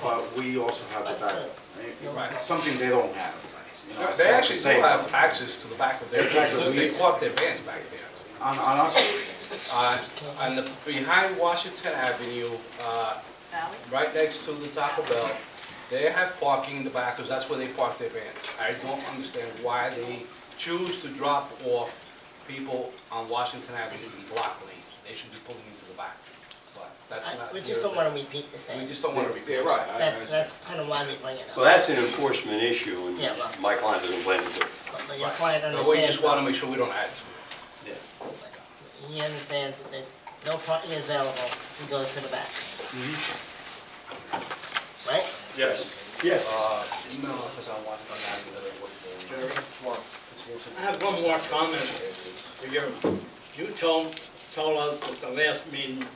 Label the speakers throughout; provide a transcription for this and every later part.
Speaker 1: but we also have the backup. right?
Speaker 2: Right.
Speaker 1: Something they don't have. you know,
Speaker 2: They
Speaker 1: so
Speaker 2: actually
Speaker 1: say-
Speaker 2: do have access to the back of their,
Speaker 1: Exactly.
Speaker 2: they park their vans back there.
Speaker 1: On, on us,
Speaker 2: Uh, On the, behind Washington Avenue, uh,
Speaker 3: Valley?
Speaker 2: right next to the Taco Bell, they have parking in the back, because that's where they park their vans. I don't understand why they choose to drop off people on Washington Avenue in block lanes. They should be pulling into the back, but that's
Speaker 4: I-
Speaker 2: not.
Speaker 4: We just don't want to repeat the same.
Speaker 2: We just don't want to repair.
Speaker 1: right. I-
Speaker 4: That's, that's kind of why we bring it
Speaker 5: So
Speaker 4: up.
Speaker 5: that's an enforcement issue, and
Speaker 4: Yeah, well-
Speaker 5: my client doesn't blame me.
Speaker 4: But but your client
Speaker 2: But we
Speaker 4: understands,
Speaker 2: just want to make sure we don't add to it.
Speaker 4: that- he understands that there's no parking available, he goes to the back.
Speaker 2: Mm-hmm.
Speaker 4: Right?
Speaker 1: yes.
Speaker 5: Yes.
Speaker 2: Uh, No, because I want to add another one.
Speaker 6: I have one more comment for you. You told, told us at the last meeting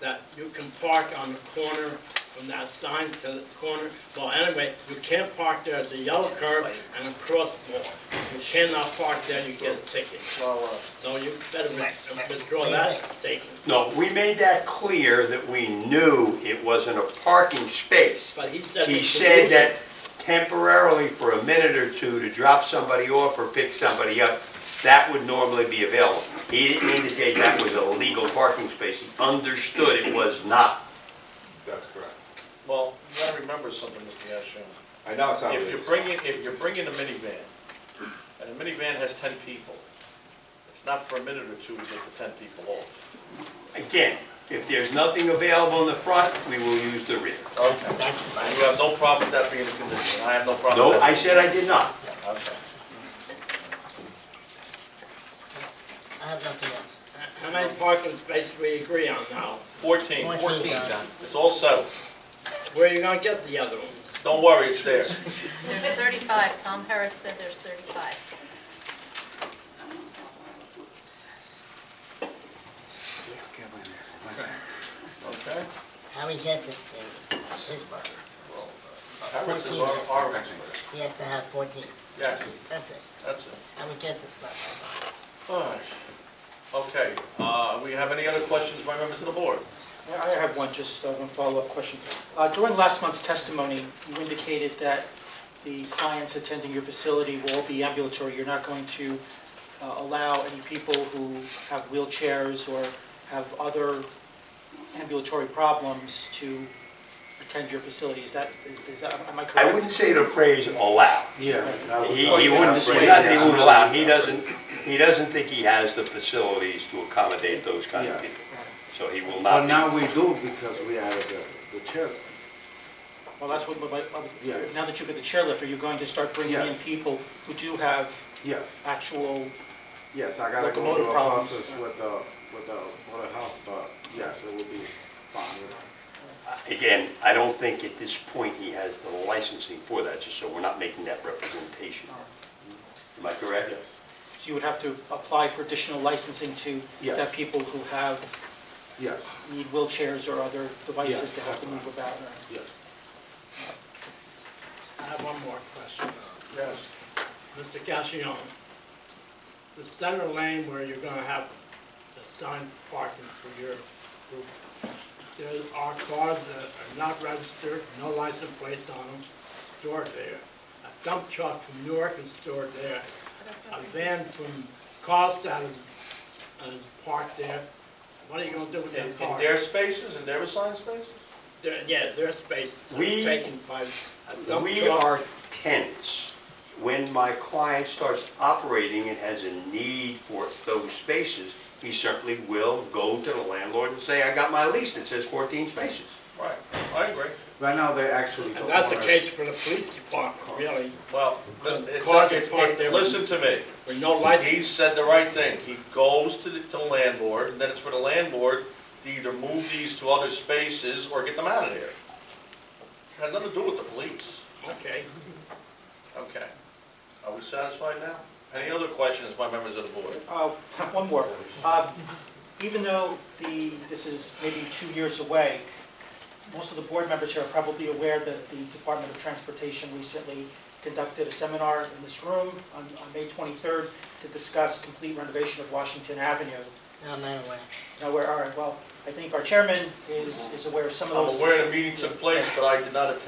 Speaker 6: that you can park on the corner from that sign to the corner. Well, anyway, you can't park there, it's a yellow curb and a crosswalk. You cannot park there, you get a ticket. So you better withdraw that statement.
Speaker 5: No, we made that clear that we knew it wasn't a parking space.
Speaker 6: But he said.
Speaker 5: He
Speaker 6: it's a
Speaker 5: said
Speaker 6: movement.
Speaker 5: that temporarily for a minute or two to drop somebody off or pick somebody up, that would normally be available. He didn't indicate that was a legal parking space. He understood it was not.
Speaker 7: That's correct.
Speaker 8: Well, you gotta remember something, Mr. Yashin.
Speaker 7: I know it's not.
Speaker 8: If
Speaker 7: legal.
Speaker 8: you're bringing, if you're bringing a minivan, and a minivan has ten people, it's not for a minute or two to get the ten people off.
Speaker 5: Again, if there's nothing available in the front, we will use the rear.
Speaker 4: That's, that's
Speaker 8: And
Speaker 4: fine.
Speaker 8: you have no problem with that being a condition, I have no problem
Speaker 5: No,
Speaker 8: with
Speaker 5: I
Speaker 8: that.
Speaker 5: said I did not.
Speaker 8: No, I. Okay.
Speaker 4: I have nothing else.
Speaker 6: How many parking spaces we agree on now?
Speaker 8: Fourteen,
Speaker 4: Fourteen, John.
Speaker 8: it's all settled,
Speaker 6: Where are you gonna get the other one?
Speaker 8: don't worry, it's there.
Speaker 3: There's 35, Tom Herrod said there's 35.
Speaker 8: Okay.
Speaker 4: How he gets it is his part.
Speaker 7: Harrods is our, our expert.
Speaker 4: He has to have fourteen,
Speaker 8: Yes,
Speaker 4: that's it.
Speaker 8: that's it.
Speaker 4: How he gets it's not my fault.
Speaker 8: Alright. Okay, uh, we have any other questions by members of the board?
Speaker 9: Yeah, I have one, just uh, one follow-up question. Uh, During last month's testimony, you indicated that the clients attending your facility will all be ambulatory. You're not going to uh, allow any people who have wheelchairs or have other ambulatory problems to attend your facility. Is that, is is that, am I correct?
Speaker 5: I wouldn't say the phrase allow.
Speaker 1: Yes. that was-
Speaker 5: He, he wouldn't,
Speaker 1: Yeah.
Speaker 5: not that he wouldn't allow, he doesn't, he doesn't think he has the facilities to accommodate those kind of
Speaker 1: Yes.
Speaker 5: people. So he will
Speaker 1: But
Speaker 5: not
Speaker 1: now
Speaker 5: be.
Speaker 1: we do because we added the, the chair.
Speaker 9: Well, that's what, my- my-
Speaker 1: Yeah.
Speaker 9: now that you've got the chairlift, are you going to start bringing in
Speaker 1: Yes.
Speaker 9: people who do have
Speaker 1: Yes,
Speaker 9: actual
Speaker 1: yes, I gotta go
Speaker 9: Locomotive
Speaker 1: through a
Speaker 9: problems.
Speaker 1: process with the, with the, with the health, but yes, it will be fine.
Speaker 5: Again, I don't think at this point he has the licensing for that, just so we're not making that representation. Am I correct?
Speaker 9: So you would have to apply for additional licensing to,
Speaker 1: Yes.
Speaker 9: that people who have,
Speaker 1: Yes,
Speaker 9: need wheelchairs or other devices
Speaker 1: Yes.
Speaker 9: to have to move about.
Speaker 1: yes.
Speaker 6: I have one more question.
Speaker 8: Yes.
Speaker 6: Mr. Gassion, the center lane where you're gonna have the sign parking for your group, there are cars that are not registered, no license plates on them, stored there. A dump truck from Newark is stored there. A van from Carlstadt is, is parked there. What are you gonna do with
Speaker 8: In,
Speaker 6: that
Speaker 8: in
Speaker 6: car?
Speaker 8: their spaces, in their assigned spaces?
Speaker 6: There- Yeah, their space
Speaker 5: We-
Speaker 6: is taken by a dump
Speaker 5: We
Speaker 6: truck.
Speaker 5: are tenants. When my client starts operating and has a need for those spaces, he certainly will go to the landlord and say, I got my lease that says fourteen spaces.
Speaker 8: Right, I agree.
Speaker 1: Right now, they actually don't
Speaker 6: And
Speaker 1: want us.
Speaker 6: that's a case for the police department, really,
Speaker 8: Well, it's,
Speaker 6: Cars
Speaker 8: it's-
Speaker 6: are parked there.
Speaker 8: listen to me.
Speaker 6: with no license.
Speaker 8: He said the right thing. He goes to the, to the landlord, and then it's for the landlord to either move these to other spaces or get them out of there. Had nothing to do with the police.
Speaker 6: Okay.
Speaker 8: Okay. Are we satisfied now? Any other questions by members of the board?
Speaker 9: Uh, One more. Uh, Even though the, this is maybe two years away, most of the board members here are probably aware that the Department of Transportation recently conducted a seminar in this room on on May 23rd to discuss complete renovation of Washington Avenue.
Speaker 4: No, I'm not aware.
Speaker 9: Now, where, all right, well, I think our chairman is is aware of some of
Speaker 8: I'm
Speaker 9: those.
Speaker 8: aware the meeting took place, but I did not attend.